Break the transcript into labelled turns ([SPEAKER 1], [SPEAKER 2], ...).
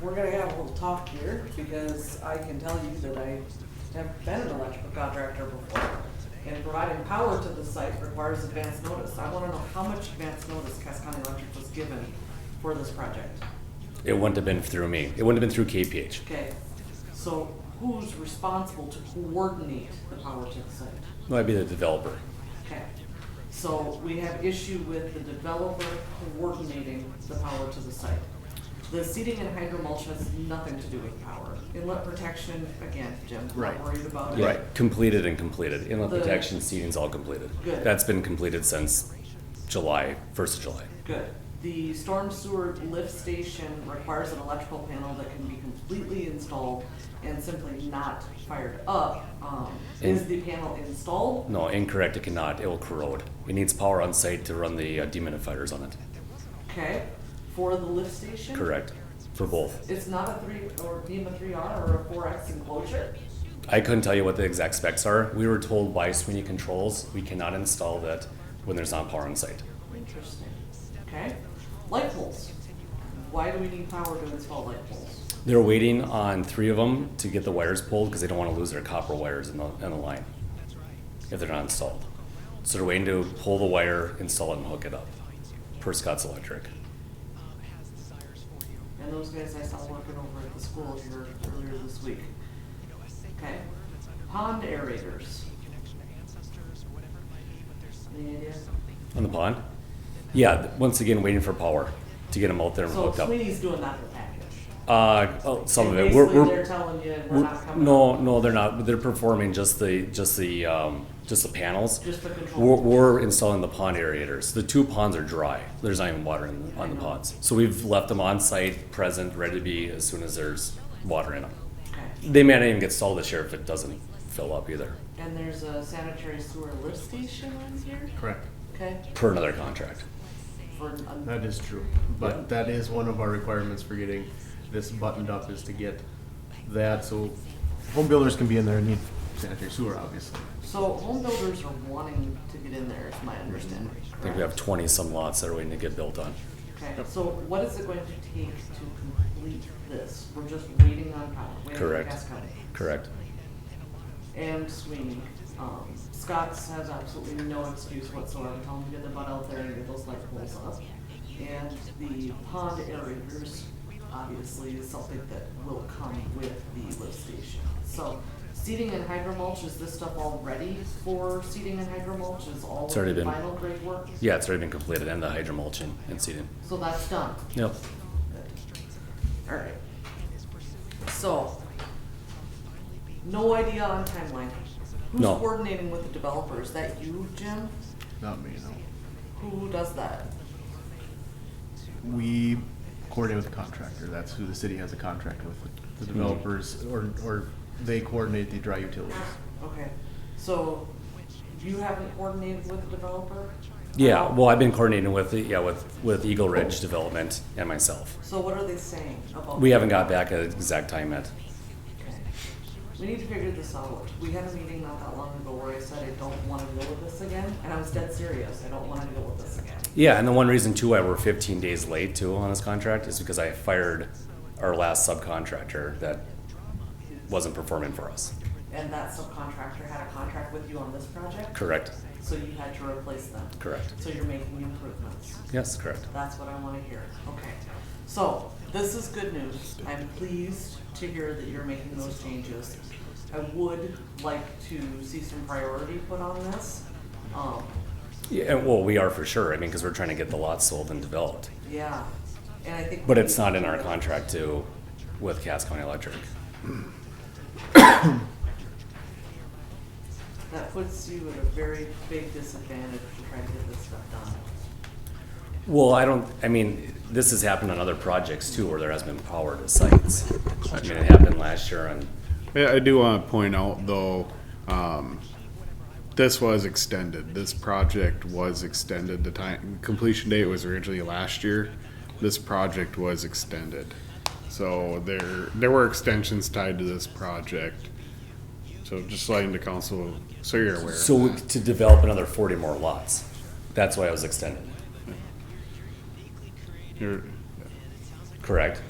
[SPEAKER 1] we're gonna have a little talk here, because I can tell you that I have been an electrical contractor before. And providing power to the site requires advance notice. I wanna know how much advance notice Cass County Electric was given for this project.
[SPEAKER 2] It wouldn't have been through me. It wouldn't have been through KPH.
[SPEAKER 1] Okay, so who's responsible to coordinate the power to the site?
[SPEAKER 2] No, I'd be the developer.
[SPEAKER 1] Okay, so we have issue with the developer coordinating the power to the site. The seeding and hydro mulch has nothing to do with power. Inlet protection, again, Jim,
[SPEAKER 3] Right.
[SPEAKER 1] not worried about it.
[SPEAKER 3] Right.
[SPEAKER 2] Completed and completed. Inlet
[SPEAKER 1] The-
[SPEAKER 2] protection seeding's all completed.
[SPEAKER 1] Good.
[SPEAKER 2] That's been completed since July, first of July.
[SPEAKER 1] Good. The storm sewer lift station requires an electrical panel that can be completely installed and simply not fired up. Um, Is
[SPEAKER 2] And-
[SPEAKER 1] the panel installed?
[SPEAKER 2] No, incorrect. It cannot. It will corrode. It needs power on site to run the uh, dehumidifiers on it.
[SPEAKER 1] Okay, for the lift station?
[SPEAKER 2] Correct. For both.
[SPEAKER 1] It's not a three or beam a three R or a four X enclosure?
[SPEAKER 2] I couldn't tell you what the exact specs are. We were told by Sweeney Controls we cannot install that when there's not power on site.
[SPEAKER 1] Interesting. Okay. Light poles. Why do we need power to install light poles?
[SPEAKER 2] They're waiting on three of them to get the wires pulled because they don't want to lose their copper wires in the, in the line if they're not installed. So they're waiting to pull the wire, install it, and hook it up per Scott's Electric.
[SPEAKER 1] And those guys I saw working over at the school here earlier this week. Okay. Pond aerators. Any idea?
[SPEAKER 2] On the pond? Yeah, th- once again, waiting for power to get them out there and
[SPEAKER 1] So
[SPEAKER 2] hooked up.
[SPEAKER 1] Sweeney's doing that for package.
[SPEAKER 2] Uh, oh, some of
[SPEAKER 1] And
[SPEAKER 2] it. We're,
[SPEAKER 1] basically
[SPEAKER 2] we're,
[SPEAKER 1] They're telling you we're
[SPEAKER 2] we're-
[SPEAKER 1] not coming.
[SPEAKER 2] no, no, they're not. They're performing just the, just the, um, just the panels.
[SPEAKER 1] Just the control.
[SPEAKER 2] We're, we're installing the pond aerators. The two ponds are dry. There's not even water in, on the ponds. So we've left them on site, present, ready to be as soon as there's water in them.
[SPEAKER 1] Okay.
[SPEAKER 2] They may not even get stalled this year if it doesn't fill up either,
[SPEAKER 1] And there's a sanitary sewer lift station on here?
[SPEAKER 3] Correct.
[SPEAKER 1] Okay,
[SPEAKER 2] per another contract.
[SPEAKER 1] for, an-
[SPEAKER 3] That is true, but that is one of our requirements for getting this buttoned up is to get that, so home builders can be in there and need sanitary sewer, obviously.
[SPEAKER 1] so home builders are wanting to get in there, is my understanding.
[SPEAKER 2] I think we have
[SPEAKER 1] correct?
[SPEAKER 2] twenty some lots that are waiting to get built on.
[SPEAKER 1] Okay, so what is it going to take to complete this? We're just waiting on power, waiting on
[SPEAKER 2] Correct.
[SPEAKER 1] Cass County.
[SPEAKER 2] Correct.
[SPEAKER 1] And Sweeney, um, Scott's has absolutely no excuse whatsoever, tell them to get their butt out there and get those light poles up. And the pond aerators, obviously, is something that will come with the lift station. So seeding and hydro mulch, is this stuff all ready for seeding and hydro mulch, is all
[SPEAKER 2] It's already
[SPEAKER 1] of the
[SPEAKER 2] been-
[SPEAKER 1] final grade work?
[SPEAKER 2] Yeah, it's already been completed and the hydro mulching and seeding.
[SPEAKER 1] So that's done?
[SPEAKER 2] Yep.
[SPEAKER 1] Alright. So, no idea on timeline. Who's
[SPEAKER 2] No.
[SPEAKER 1] coordinating with the developer? Is that you, Jim?
[SPEAKER 3] Not me, no.
[SPEAKER 1] Who does that?
[SPEAKER 3] We coordinate with the contractor, that's who the city has a contract with, the developers, or, or they coordinate the dry utilities.
[SPEAKER 1] Okay, so you haven't coordinated with the developer?
[SPEAKER 2] Yeah, well, I've been coordinating with, the- yeah, with, with Eagle Ridge Development and myself.
[SPEAKER 1] So what are they saying about?
[SPEAKER 2] We haven't got back an exact time yet.
[SPEAKER 1] Okay. We need to figure this out. We had a meeting not that long ago where I said I don't wanna deal with this again, and I was dead serious. I don't wanna deal with this again.
[SPEAKER 2] Yeah, and the one reason too why we're 15 days late too on this contract is because I fired our last subcontractor that wasn't performing for us.
[SPEAKER 1] And that subcontractor had a contract with you on this project?
[SPEAKER 2] Correct.
[SPEAKER 1] So you had to replace them?
[SPEAKER 2] Correct.
[SPEAKER 1] So you're making improvements?
[SPEAKER 2] Yes, correct.
[SPEAKER 1] That's what I wanna hear. Okay. So, this is good news. I'm pleased to hear that you're making those changes. I would like to see some priority put on this. Um,
[SPEAKER 2] Yeah, and, well, we are for sure. I mean, because we're trying to get the lots sold and developed,
[SPEAKER 1] yeah, and I think.
[SPEAKER 2] but it's not in our contract too with Cass County Electric.
[SPEAKER 1] That puts you at a very big disadvantage to try to get this stuff done.
[SPEAKER 2] Well, I don't. I mean, this has happened on other projects too, where there has been power to sites. I mean, it happened last year on.
[SPEAKER 4] Yeah, I do want to point out though, um, this was extended. This project was extended. The time completion date was originally last year. This project was extended. So there, there were extensions tied to this project. So just letting the council, so you're aware. of
[SPEAKER 2] So
[SPEAKER 4] that.
[SPEAKER 2] to develop another 40 more lots, that's why I was extended.
[SPEAKER 4] You're-
[SPEAKER 2] Correct.